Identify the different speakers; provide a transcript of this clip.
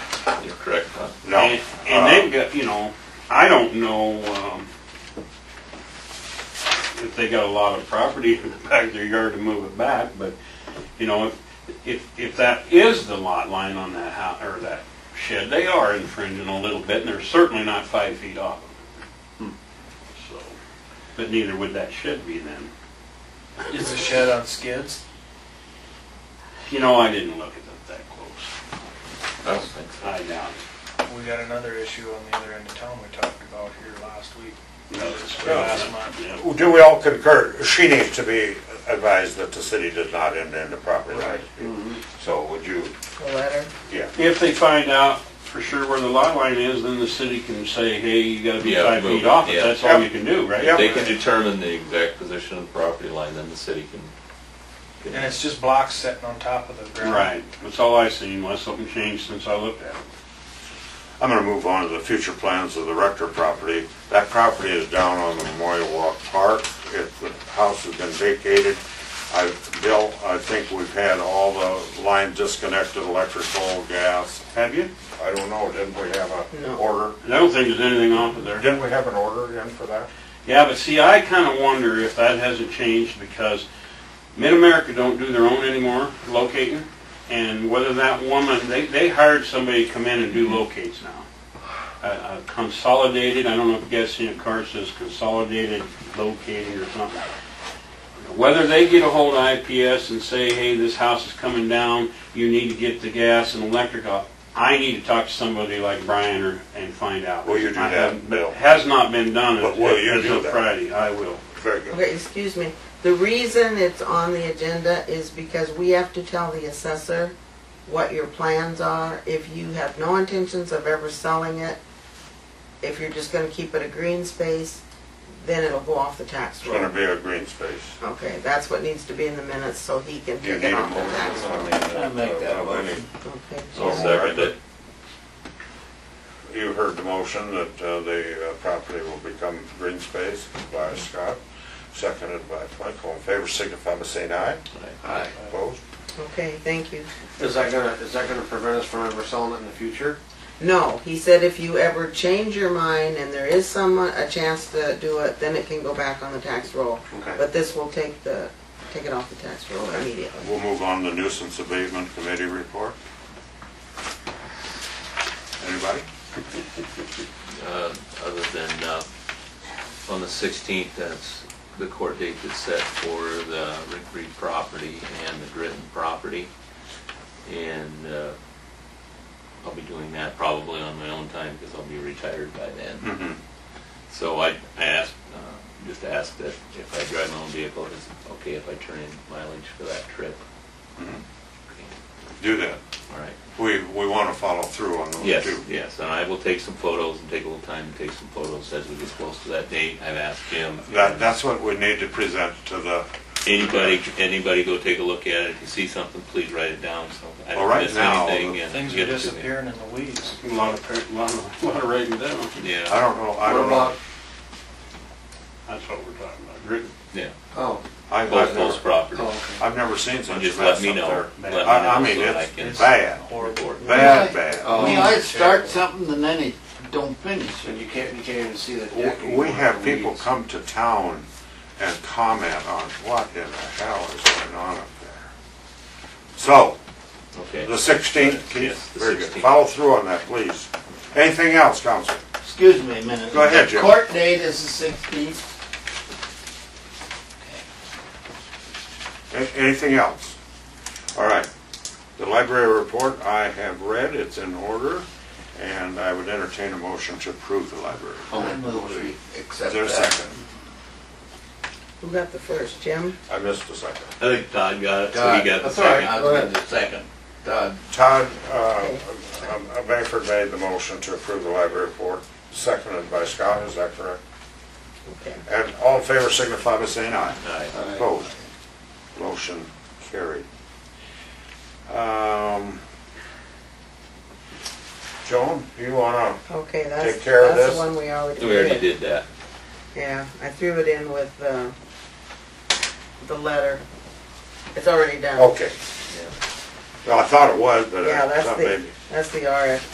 Speaker 1: correct, huh?
Speaker 2: No.
Speaker 3: And, and they've got, you know, I don't know um, if they got a lot of property in the back of their yard to move it back, but, you know, if, if, if that is the lot line on that house, or that shed, they are infringing a little bit, and they're certainly not five feet off of it. So, but neither would that shed be then.
Speaker 4: Is the shed on skids?
Speaker 3: You know, I didn't look at it that close.
Speaker 1: I don't think so.
Speaker 3: I doubt
Speaker 4: We got another issue on the other end of town we talked about here last week.
Speaker 3: it. No, it's-
Speaker 4: Last month.
Speaker 3: Yeah.
Speaker 2: Do we all concur, she needs to be advised that the city does not end in the property line. So would you,
Speaker 5: The letter.
Speaker 2: yeah,
Speaker 3: If they find out for sure where the lot line is, then the city can say, hey, you gotta be
Speaker 1: Yeah,
Speaker 3: five
Speaker 1: move
Speaker 3: feet
Speaker 1: it,
Speaker 3: off it,
Speaker 1: yeah.
Speaker 3: that's all
Speaker 2: Yeah.
Speaker 3: you can do, right?
Speaker 2: Yeah.
Speaker 1: They can determine the exact position of the property line, then the city can. can-
Speaker 4: And it's just blocks sitting on top of the ground.
Speaker 3: Right, that's all I seen, unless something changed since I looked at it.
Speaker 2: I'm gonna move on to the future plans of the Rector property. That property is down on the Memorial Walk Park, it, the house has been vacated. I, Bill, I think we've had all the lines disconnected, electrical, gas,
Speaker 3: Have you?
Speaker 2: I don't know, didn't we have a
Speaker 5: No.
Speaker 2: order?
Speaker 3: I don't think there's anything off of there.
Speaker 2: Didn't we have an order in for that?
Speaker 3: Yeah, but see, I kinda wonder if that hasn't changed because Mid-America don't do their own anymore, locating. And whether that woman, they, they hired somebody to come in and do
Speaker 2: Mm-hmm.
Speaker 3: locates now. Uh, uh, consolidated, I don't know if you guys seen a car says consolidated locating or something. Whether they get a hold of IPS and say, hey, this house is coming down, you need to get the gas and electric off, I need to talk to somebody like Brian or, and find out.
Speaker 2: Will you do
Speaker 3: I
Speaker 2: that,
Speaker 3: haven't- but
Speaker 2: Bill?
Speaker 3: it Has not been done
Speaker 2: But will you
Speaker 3: as
Speaker 2: do
Speaker 3: of
Speaker 2: that?
Speaker 3: Friday, I will.
Speaker 2: Very good.
Speaker 5: Okay, excuse me. The reason it's on the agenda is because we have to tell the assessor what your plans are. If you have no intentions of ever selling it, if you're just gonna keep it a green space, then it'll go off the tax
Speaker 2: It's gonna
Speaker 5: roll.
Speaker 2: be a green space.
Speaker 5: Okay, that's what needs to be in the minutes so he can
Speaker 2: You
Speaker 5: take
Speaker 2: need
Speaker 5: it
Speaker 2: a
Speaker 5: off the
Speaker 2: motion.
Speaker 5: tax roll.
Speaker 1: I
Speaker 4: make that
Speaker 2: Uh,
Speaker 4: motion.
Speaker 2: any-
Speaker 5: Okay.
Speaker 1: So second it.
Speaker 2: You heard the motion that uh, the uh, property will become green space by Scott, seconded by Mike. All in favor, signify by saying aye.
Speaker 6: Aye.
Speaker 2: Opposed?
Speaker 5: Okay, thank you.
Speaker 6: Is that gonna, is that gonna prevent us from ever selling it in the future?
Speaker 5: No, he said if you ever change your mind and there is some, uh, a chance to do it, then it can go back on the tax roll.
Speaker 6: Okay.
Speaker 5: But this will take the, take it off the tax roll immediately.
Speaker 2: We'll move on to nuisance abatement committee report. Anybody?
Speaker 1: uh, other than, uh, on the 16th, that's the court date that's set for the Rick Reed property and the Gritton property. And uh, I'll be doing that probably on my own time because I'll be retired by then.
Speaker 2: Mhm.
Speaker 1: So I I asked, uh, just asked that if I drive my own vehicle, is it okay if I turn in mileage for that trip?
Speaker 2: Mhm.
Speaker 1: Okay,
Speaker 2: Do that.
Speaker 1: All right.
Speaker 2: We, we want to follow through on those
Speaker 1: Yes,
Speaker 2: two.
Speaker 1: yes, and I will take some photos and take a little time to take some photos as we get close to that date. I've asked Jim.
Speaker 2: That, that's what we need to present to the,
Speaker 1: Anybody, anybody go take a look at it. If you see something, please write it down so I
Speaker 2: Well,
Speaker 1: don't
Speaker 2: right
Speaker 1: miss
Speaker 2: now,
Speaker 1: anything.
Speaker 2: the
Speaker 1: and
Speaker 4: Things
Speaker 1: get
Speaker 4: are
Speaker 1: it to me.
Speaker 4: disappearing in the weeds.
Speaker 3: A lot of, par- lot of, lot of writing down.
Speaker 2: I
Speaker 1: Yeah,
Speaker 2: don't know, I don't know.
Speaker 6: What
Speaker 3: That's what we're talking about. Grit-
Speaker 1: yeah.
Speaker 6: about- Oh,
Speaker 2: I- I've
Speaker 1: Both those
Speaker 2: never-
Speaker 1: properties.
Speaker 6: oh, okay.
Speaker 2: I've never seen such a mess
Speaker 1: Just
Speaker 2: up
Speaker 1: let me know.
Speaker 2: there.
Speaker 1: Let
Speaker 2: I- I
Speaker 1: me
Speaker 2: mean,
Speaker 1: know so that I
Speaker 2: it's-
Speaker 1: can
Speaker 2: it's bad.
Speaker 1: report.
Speaker 2: Bad, bad.
Speaker 6: Oh.
Speaker 7: You know, it starts something and then it don't finish.
Speaker 6: And you can't, you can't even see the deck.
Speaker 2: W- We
Speaker 6: anymore.
Speaker 2: have people come to town and comment on what in the hell is going on up there. So,
Speaker 1: Okay.
Speaker 2: the sixteenth,
Speaker 1: Yes, the
Speaker 2: very good,
Speaker 1: 16th.
Speaker 2: follow through on that, please. Anything else, council?
Speaker 7: Excuse me a minute.
Speaker 2: Go ahead,
Speaker 7: The
Speaker 2: Jim.
Speaker 7: Court date is the sixteenth.
Speaker 2: A- Anything else? All right, the library report I have read, it's in order, and I would entertain a motion to approve the library.
Speaker 7: I move we
Speaker 2: Is
Speaker 7: accept
Speaker 2: there a
Speaker 7: Oh, that.
Speaker 2: second?
Speaker 5: Who got the first, Jim?
Speaker 2: I missed a second.
Speaker 1: I think Todd got it, so he
Speaker 7: Todd,
Speaker 1: got the
Speaker 7: that's all right.
Speaker 1: second.
Speaker 7: I
Speaker 6: I
Speaker 7: was
Speaker 6: was
Speaker 7: gonna
Speaker 6: the second.
Speaker 7: Done.
Speaker 2: Todd, uh, um, uh, Bangford made the motion to approve the library report, seconded by Scott, is that correct?
Speaker 5: Okay.
Speaker 2: And all in favor signify by saying aye.
Speaker 1: All right.
Speaker 2: Opposed? Motion carried. Um, Joan, you wanna,
Speaker 5: Okay, that's,
Speaker 2: Take care of
Speaker 5: that's
Speaker 2: this?
Speaker 5: the one we already did.
Speaker 1: We already did that.
Speaker 5: Yeah, I threw it in with the, the letter. It's
Speaker 2: Oh.
Speaker 5: already done.
Speaker 2: okay. Well, I thought it was, but
Speaker 5: Yeah,
Speaker 2: I
Speaker 5: that's
Speaker 2: thought
Speaker 5: the,
Speaker 2: maybe.
Speaker 5: that's the RF